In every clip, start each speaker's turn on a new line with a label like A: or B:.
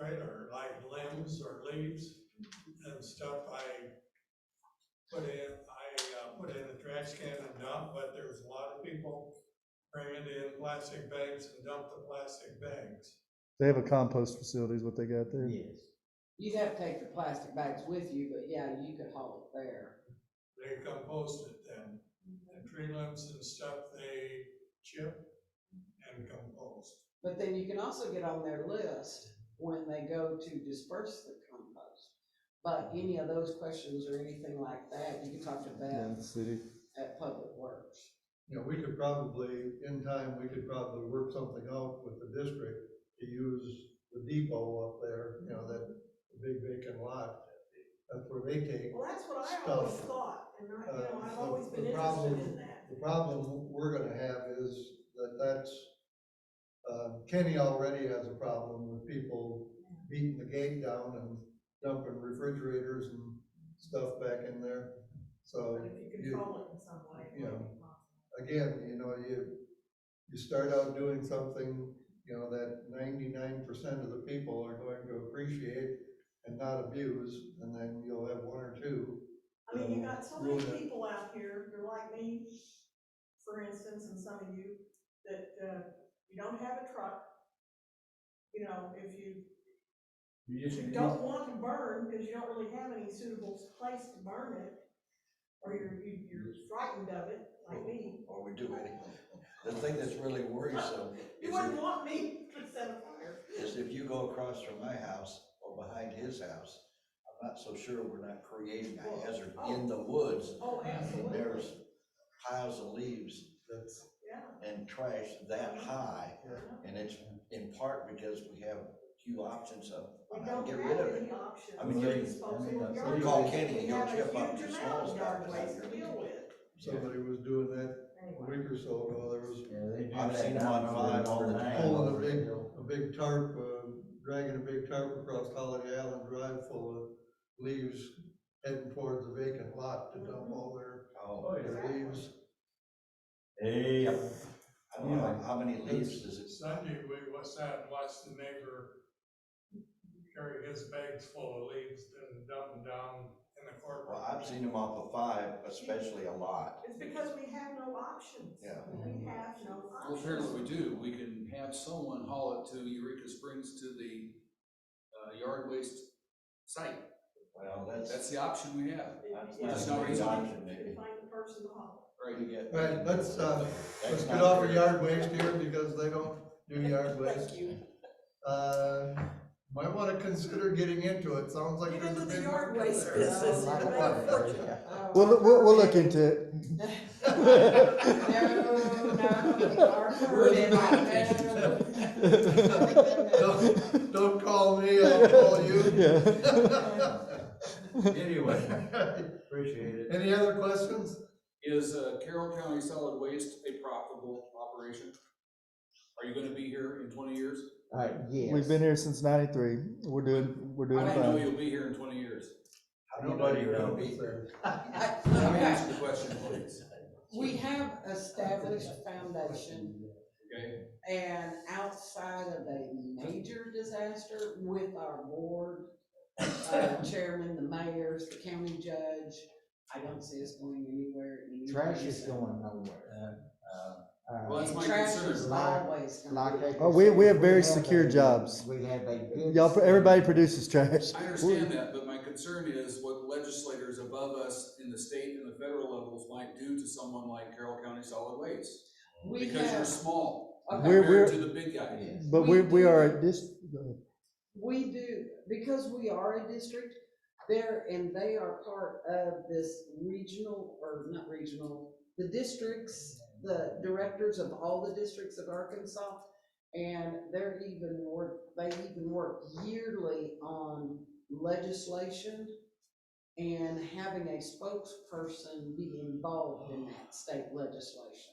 A: right, or like limbs or leaves and stuff, I put in, I, uh, put in the trash can and dump, but there's a lot of people bring it in plastic bags and dump the plastic bags.
B: They have a compost facility is what they got there.
C: Yes.
D: You'd have to take the plastic bags with you, but yeah, you could haul it there.
A: They compost it then, and tree limbs and stuff, they chip and compost.
D: But then you can also get on their list when they go to disperse the compost. But any of those questions or anything like that, you can talk to
B: Yeah,
D: Beth
B: city.
D: at Public Works.
E: you know, we could probably, in time, we could probably work something out with the district to use the depot up there, you know, that big vacant lot. That's where they take,
F: Well, that's what I always
E: Stuff.
F: thought, and I, you know,
E: Uh,
F: I've always
E: the-
F: been
E: the
F: interested
E: problem-
F: in that.
E: the problem we're gonna have is that that's, uh, Kenny already has a problem with people beating the gate down and dumping refrigerators and stuff back in there.
F: But
E: So
F: if you
E: you-
F: control it in some way, it
E: you
F: might
E: know,
F: be possible.
E: again, you know, you, you start out doing something, you know, that ninety-nine percent of the people are going to appreciate and not abuse, and then you'll have one or two.
F: I mean, you got so
E: Rule
F: many
E: that.
F: people out here, you're like me, for instance, and some of you, that, uh, you don't have a truck. You know, if you
G: You just,
H: Mm-hmm.
F: you don't want to burn, because you don't really have any suitable place to burn it, or you're, you- you're
H: Mm-hmm.
F: frightened of it, like me.
H: or we do anyway. The thing that's really worrisome
F: You
H: is
F: wouldn't
H: if,
F: want me to set a fire.
H: is if you go across from my house or behind his house, I'm not so sure we're not creating a hazard in the woods.
F: Oh, absolutely.
H: There's piles of leaves
E: That's,
F: Yeah,
H: and trash that high,
F: I know.
H: and it's in part because we have few options of
F: We
H: how
F: don't
H: to Uh, get rid of
F: have any
H: it.
F: options.
H: I mean, you
F: for
H: can-
F: disposal
G: I mean,
F: of
G: that's-
F: yard
H: You call
F: waste.
H: Kenny,
F: We
H: he'll
F: have a
H: chip up
F: huge
H: your
F: amount of
H: small stuff,
F: yard
H: but not
F: waste to
H: really.
F: deal with.
E: somebody was doing that a
F: Anyway,
E: week or so ago, there was
G: yeah, they do.
H: I've
G: say
H: seen them
G: that
H: on
G: over
H: Vine
G: and
H: all the
G: over
H: time.
G: and
E: pulling a
G: over.
E: big, a big tarp, uh, dragging a big tarp across Holiday Island Drive full of leaves heading towards the vacant lot to
F: Mm-hmm.
E: dump all their,
H: Oh,
G: Oh, yeah.
E: their leaves.
G: Hey, yeah.
H: I don't know, how many leaves does it,
A: Sunday, we was out and watched the neighbor carry his bags full of leaves and dump them down in the corporate.
H: well, I've seen them off of five, especially a lot.
F: It's because we have no options.
H: Yeah.
F: We have no
I: Well,
F: options.
I: here's what we do, we can have someone haul it to Eureka Springs to the, uh, yard waste site,
H: Well, that's.
I: that's the option we have,
F: It's-
H: That's
F: it's
I: not a
F: hard
I: great
F: to find-
H: option, maybe.
F: to Find the person to haul.
I: right?
H: You get-
E: Right, let's, uh,
H: That's
E: Let's get
H: not
E: off of
H: fair.
E: yard waste here because they don't do yard waste.
D: you.
E: Uh, might wanna consider getting into it, sounds like
F: Get
E: there's a
F: into the
E: big.
F: yard
E: market
F: waste
E: there.
F: business,
C: Like
F: it'll make
C: what?
F: a fortune.
D: Oh.
B: We'll, we'll, we'll look into it.
E: Don't, don't call me, I'll call you.
G: Anyway, appreciate it.
E: Any other questions?
I: Is, uh, Carroll County Solid Waste a profitable operation? Are you gonna be here in twenty years?
C: Uh, yes.
B: We've been here since ninety-three. We're doing, we're
I: I
B: doing
I: don't know
B: fine.
I: you'll be here in twenty years.
H: How Nobody will be.
I: Let me answer the question, please,
D: We have established foundation
I: okay?
D: and outside of a major disaster with our board, uh, chairman, the mayors, the county judge, I don't see us going anywhere. anytime
C: Trash is
D: soon.
C: going nowhere.
I: Well,
C: Uh,
I: that's my
D: Trash is
I: concern,
D: always gonna
C: like
D: be.
C: they
B: Oh, we- we have very
C: said, we
B: secure
C: a-
B: jobs.
C: We have a good.
B: Y'all, everybody produces trash.
I: I understand that, but my concern is what legislators above us in the state and the federal levels might do to someone like Carroll County Solid Waste.
D: We
I: Because you're
D: have,
I: small
D: Okay.
B: We're- we're-
I: compared to the big guy.
C: Yes.
B: But we, we are a dis,
D: we do, because we are a district, there, and they are part of this regional, or not regional, the districts, the directors of all the districts of Arkansas, and they're even work, they even work yearly on legislation and having a spokesperson be involved in that state legislation.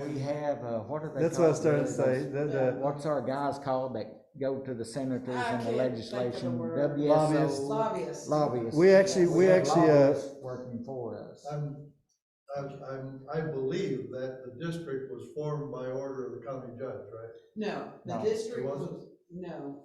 C: We have, uh, what are they?
B: that's what I was starting
C: called?
B: to say.
C: Those-
B: The, the
C: What's our guys called that go to the senators
D: I
C: and the
D: can't think of the
C: legislation?
D: word.
B: Lobbyists.
C: WSO
D: Lobbyists.
C: lobbyists.
B: We actually-
C: Yes.
B: we
C: have
B: actually, uh,
C: lobbyists Working for us.
E: I'm, I'm, I'm, I believe that the district was formed by order of the county judge, right?
D: No, the
C: No,
D: district
E: wasn't?
D: was, no,